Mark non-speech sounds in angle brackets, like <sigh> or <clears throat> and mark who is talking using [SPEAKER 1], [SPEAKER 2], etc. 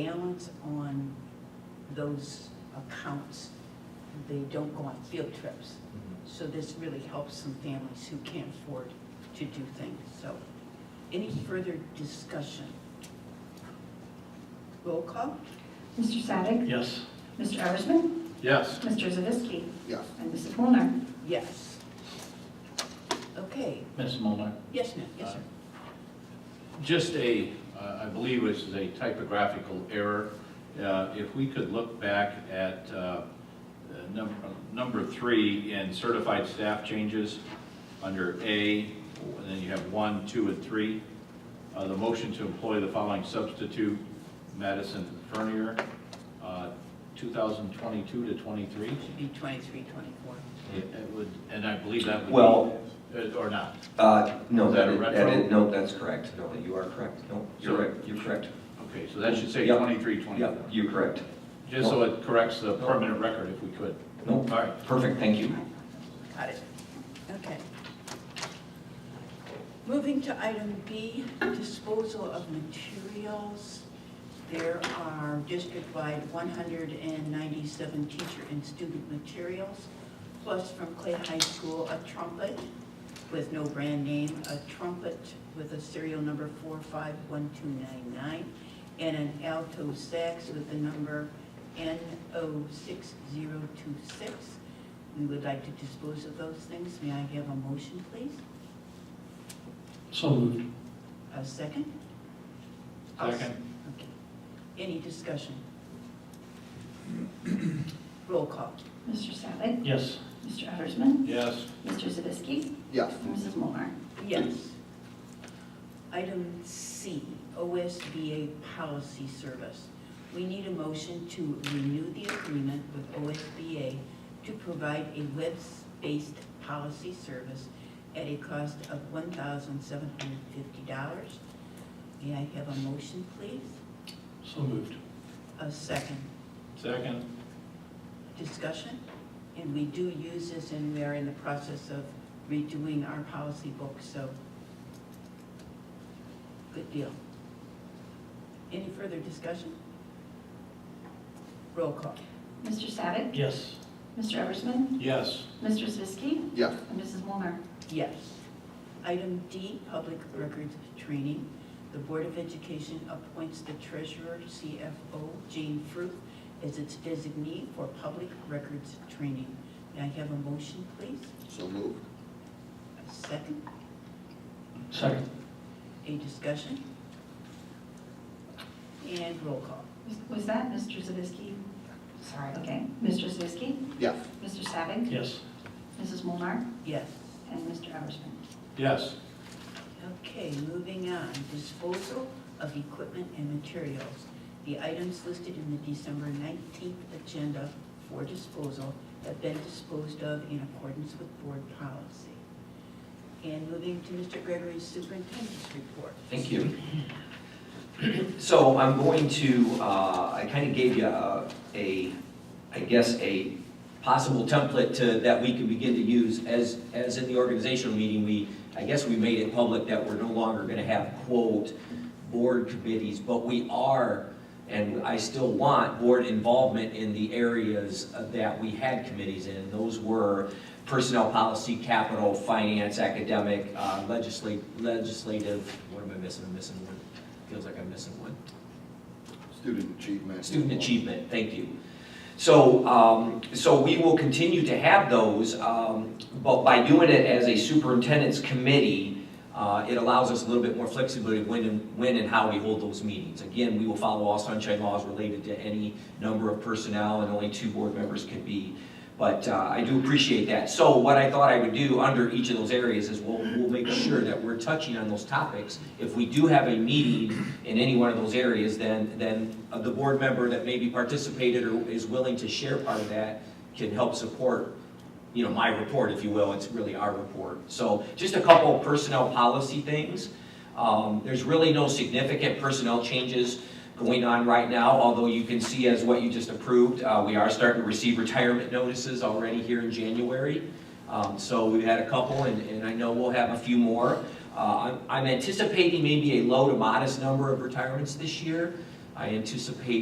[SPEAKER 1] balance on those accounts, they don't go on field trips. So this really helps some families who can't afford to do things, so. Any further discussion? Roll call?
[SPEAKER 2] Mr. Savick.
[SPEAKER 3] Yes.
[SPEAKER 2] Mr. Eversman.
[SPEAKER 3] Yes.
[SPEAKER 2] Mr. Zavisky.
[SPEAKER 4] Yes.
[SPEAKER 2] And Mrs. Molnar.
[SPEAKER 1] Yes. Okay,
[SPEAKER 3] Ms. Mulner?
[SPEAKER 1] yes, ma'am, yes, sir.
[SPEAKER 3] Just a, uh, I believe this is a typographical error. Uh, If we could look back at uh, uh, number, number three in certified staff changes, under A, and then you have one, two, and three. Uh, The motion to employ the following substitute, Madison Fernier, uh, 2022 to 23.
[SPEAKER 1] Should be 23, 24.
[SPEAKER 3] It it would, and I believe that would be. uh,
[SPEAKER 5] Well-
[SPEAKER 3] Or not.
[SPEAKER 5] Uh, no,
[SPEAKER 3] Is that
[SPEAKER 5] that
[SPEAKER 3] a
[SPEAKER 5] is, that
[SPEAKER 3] retro?
[SPEAKER 5] is, no, that's correct. No, you are correct. No, you're
[SPEAKER 3] So-
[SPEAKER 5] right, you're correct.
[SPEAKER 3] Okay, so that should say
[SPEAKER 5] Yeah.
[SPEAKER 3] 23, 24.
[SPEAKER 5] Yeah, you're correct.
[SPEAKER 3] Just so it corrects the permanent record if we could.
[SPEAKER 5] No,
[SPEAKER 3] All right.
[SPEAKER 5] perfect, thank you.
[SPEAKER 1] Got it. Okay. Moving to item B, disposal of materials. There are district-wide 197 teacher and student materials, plus from Clay High School, a trumpet with no brand name, a trumpet with a serial number 451299, and an alto sax with the number NO6026. We would like to dispose of those things. May I have a motion, please?
[SPEAKER 6] So moved.
[SPEAKER 1] A second?
[SPEAKER 3] Second.
[SPEAKER 1] Okay. Any discussion? Roll call.
[SPEAKER 2] Mr. Savick.
[SPEAKER 6] Yes.
[SPEAKER 2] Mr. Eversman.
[SPEAKER 3] Yes.
[SPEAKER 2] Mr. Zavisky.
[SPEAKER 4] Yes.
[SPEAKER 2] And Mrs. Molnar.
[SPEAKER 1] Yes. Item C, OSBA Policy Service. We need a motion to renew the agreement with OSBA to provide a web-based policy service at a cost of $1,750. May I have a motion, please?
[SPEAKER 6] So moved.
[SPEAKER 1] A second
[SPEAKER 3] Second.
[SPEAKER 1] discussion, and we do use this, and we are in the process of redoing our policy book, so good deal. Any further discussion? Roll call.
[SPEAKER 2] Mr. Savick.
[SPEAKER 6] Yes.
[SPEAKER 2] Mr. Eversman.
[SPEAKER 3] Yes.
[SPEAKER 2] Mr. Zavisky.
[SPEAKER 4] Yes.
[SPEAKER 2] And Mrs. Molnar.
[SPEAKER 1] Yes. Item D, public records training. The Board of Education appoints the treasurer, CFO, Jane Fruth, as its designee for public records training. May I have a motion, please?
[SPEAKER 4] So moved.
[SPEAKER 1] A second?
[SPEAKER 6] Second.
[SPEAKER 1] A discussion? And roll call.
[SPEAKER 2] Was- Was that Mr. Zavisky? Sorry, okay. Mr. Zavisky.
[SPEAKER 4] Yes.
[SPEAKER 2] Mr. Savick.
[SPEAKER 6] Yes.
[SPEAKER 2] Mrs. Molnar.
[SPEAKER 1] Yes.
[SPEAKER 2] And Mr. Eversman.
[SPEAKER 3] Yes.
[SPEAKER 1] Okay, moving on, disposal of equipment and materials. The items listed in the December 19th agenda for disposal have been disposed of in accordance with board policy. And moving to Mr. Gregory's superintendent's report.
[SPEAKER 5] Thank you. <clears throat> So I'm going to, uh, I kind of gave you a, a, I guess, a possible template to, that we can begin to use as, as in the organizational meeting, we, I guess we made it public that we're no longer going to have quote board committees, but we are, and I still want board involvement in the areas that we had committees in. Those were personnel policy, capital, finance, academic, uh, legislate, legislative, what am I missing? I'm missing one. Feels like I'm missing one.
[SPEAKER 4] Student achievement.
[SPEAKER 5] Student achievement, thank you. So, um, so we will continue to have those, um, but by doing it as a superintendent's committee, uh, it allows us a little bit more flexibility when and, when and how we hold those meetings. Again, we will follow all sunshine laws related to any number of personnel, and only two board members can be. But uh, I do appreciate that. So what I thought I would do under each of those areas is we'll, we'll make sure that we're touching on those topics. If we do have a meeting in any one of those areas, then, then uh, the board member that maybe participated or is willing to share part of that can help support, you know, my report, if you will. It's really our report. So just a couple of personnel policy things. Um, There's really no significant personnel changes going on right now, although you can see as what you just approved, uh, we are starting to receive retirement notices already here in January. Um, So we've had a couple, and and I know we'll have a few more. Uh, I'm I'm anticipating maybe a low to modest number of retirements this year, I anticipate